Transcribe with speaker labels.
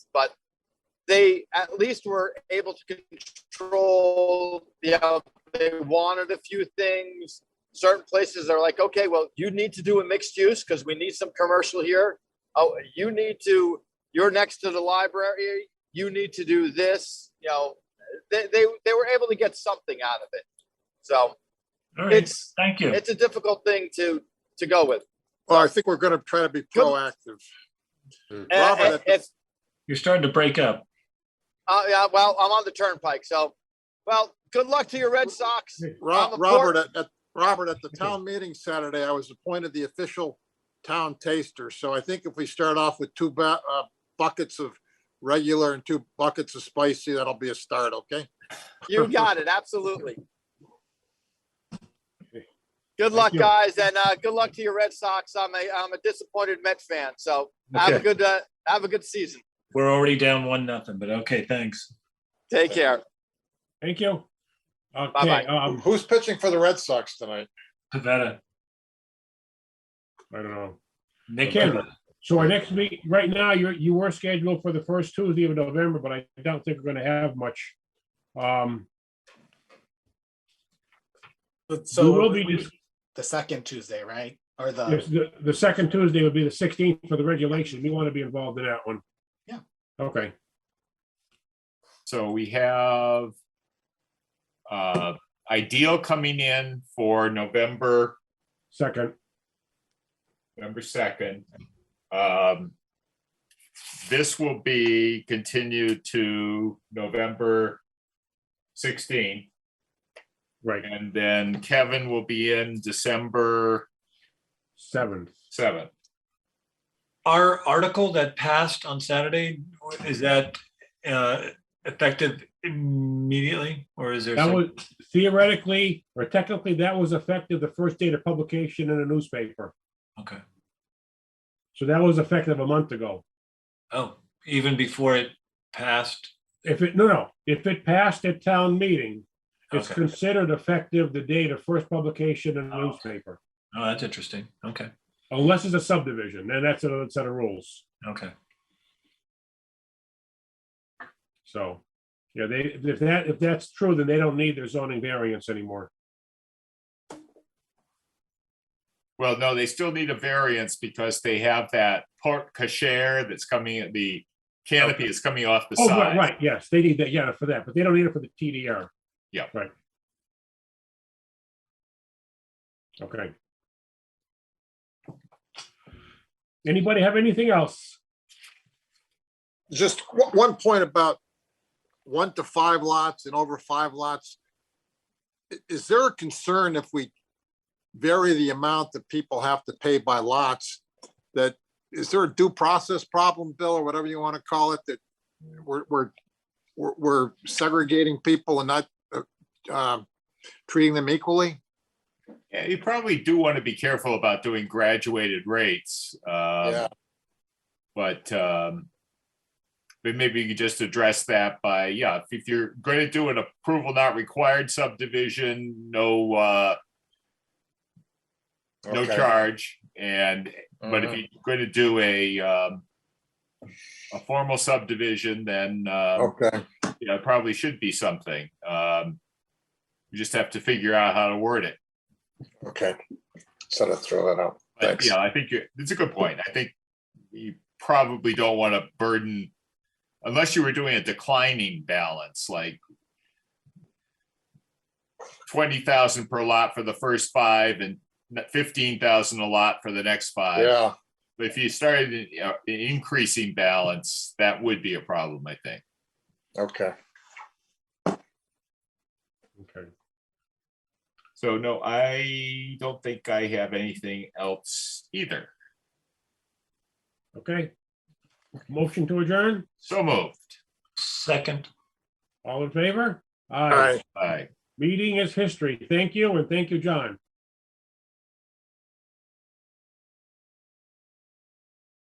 Speaker 1: but they at least were able to control the out- they wanted a few things certain places are like okay well you need to do a mixed use because we need some commercial here oh you need to you're next to the library you need to do this you know they they, they were able to get something out of it so
Speaker 2: All right,
Speaker 1: it's
Speaker 2: thank you.
Speaker 1: it's a difficult thing to to go with
Speaker 3: Well, I think we're going to try to be proactive.
Speaker 1: And-
Speaker 3: Robert,
Speaker 1: and if
Speaker 2: You're starting to break up.
Speaker 1: uh, yeah, well i'm on the turnpike so well good luck to your red sox
Speaker 3: Ro-
Speaker 1: I'm a
Speaker 3: Robert, at, at, Robert, at the town meeting Saturday, I was appointed the official town taster. So I think if we start off with two ba- uh, buckets of regular and two buckets of spicy, that'll be a start, okay?
Speaker 1: You got it. Absolutely. Good luck,
Speaker 2: you.
Speaker 1: guys, and uh, good luck to your Red Sox. I'm a I'm a disappointed Met fan, so have a
Speaker 2: Okay,
Speaker 1: good uh, have a good season.
Speaker 2: we're already down one nothing, but okay, thanks.
Speaker 1: Take care.
Speaker 4: Thank you. Okay,
Speaker 1: Bye-bye.
Speaker 4: um,
Speaker 3: Who's pitching for the Red Sox tonight?
Speaker 2: Pavetta,
Speaker 4: I don't know.
Speaker 2: Nick.
Speaker 4: Okay.
Speaker 2: Pavetta.
Speaker 4: So our next meet, right now, you, you were scheduled for the first Tuesday of November, but I don't think we're gonna have much. Um,
Speaker 5: But
Speaker 4: we will
Speaker 5: so
Speaker 4: be, dis-
Speaker 5: the second Tuesday, right? Or the,
Speaker 4: yes, the, the second Tuesday would be the sixteenth for the regulation. We want to be involved in that one.
Speaker 5: Yeah.
Speaker 4: Okay,
Speaker 6: So we have uh, Ideal coming in for November,
Speaker 4: second,
Speaker 6: November second. Um, this will be continued to November sixteenth,
Speaker 4: right,
Speaker 6: and then Kevin will be in December
Speaker 4: seventh.
Speaker 6: seventh.
Speaker 7: Our article that passed on Saturday, is that uh, effective immediately or is there?
Speaker 4: That
Speaker 7: some-
Speaker 4: was theoretically, or technically, that was effective the first date of publication in a newspaper.
Speaker 7: Okay.
Speaker 4: So that was effective a month ago.
Speaker 7: Oh, even before it passed?
Speaker 4: If it, no, no, if it passed at town meeting, it's
Speaker 7: Okay.
Speaker 4: considered effective the date of first publication in a
Speaker 7: Oh.
Speaker 4: newspaper.
Speaker 7: Oh, that's interesting. Okay.
Speaker 4: Unless it's a subdivision, then that's another set of rules.
Speaker 7: Okay.
Speaker 4: So, yeah, they, if that, if that's true, then they don't need their zoning variance anymore.
Speaker 6: Well, no, they still need a variance because they have that port cachere that's coming at the canopy is coming off the
Speaker 4: Oh, right,
Speaker 6: side.
Speaker 4: right, yes, they need that, yeah, for that, but they don't need it for the TDR.
Speaker 6: Yeah.
Speaker 4: Right. Okay. Anybody have anything else?
Speaker 3: Just o- one point about one to five lots and over five lots. I- Is there a concern if we vary the amount that people have to pay by lots? That, is there a due process problem, Bill, or whatever you want to call it, that we're, we're, we're- we're segregating people and not uh, um, treating them equally?
Speaker 6: Yeah, you probably do want to be careful about doing graduated rates. um,
Speaker 3: Yeah.
Speaker 6: But um, but maybe you could just address that by, yeah, if- if you're going to do an approval not required subdivision, no, uh, no charge. And, but if you're going to do a, um, a formal subdivision, then, um,
Speaker 3: Okay.
Speaker 6: you know, it probably should be something. Um, You just have to figure out how to word it.
Speaker 3: Okay. So to throw that out.
Speaker 6: But
Speaker 3: Thanks.
Speaker 6: yeah, I think you- it's a good point. I think you probably don't want to burden, unless you were doing a declining balance, like twenty thousand per lot for the first five and fifteen thousand a lot for the next five.
Speaker 3: Yeah,
Speaker 6: But if you started uh, an increasing balance, that would be a problem, I think.
Speaker 3: okay.
Speaker 4: Okay,
Speaker 6: So no, I don't think I have anything else either.
Speaker 4: okay. Motion to adjourn,
Speaker 6: So moved.
Speaker 7: Second.
Speaker 4: all in favor?
Speaker 3: All right.
Speaker 4: Aye.
Speaker 6: Bye.
Speaker 4: Meeting is history. Thank you, and thank you, John.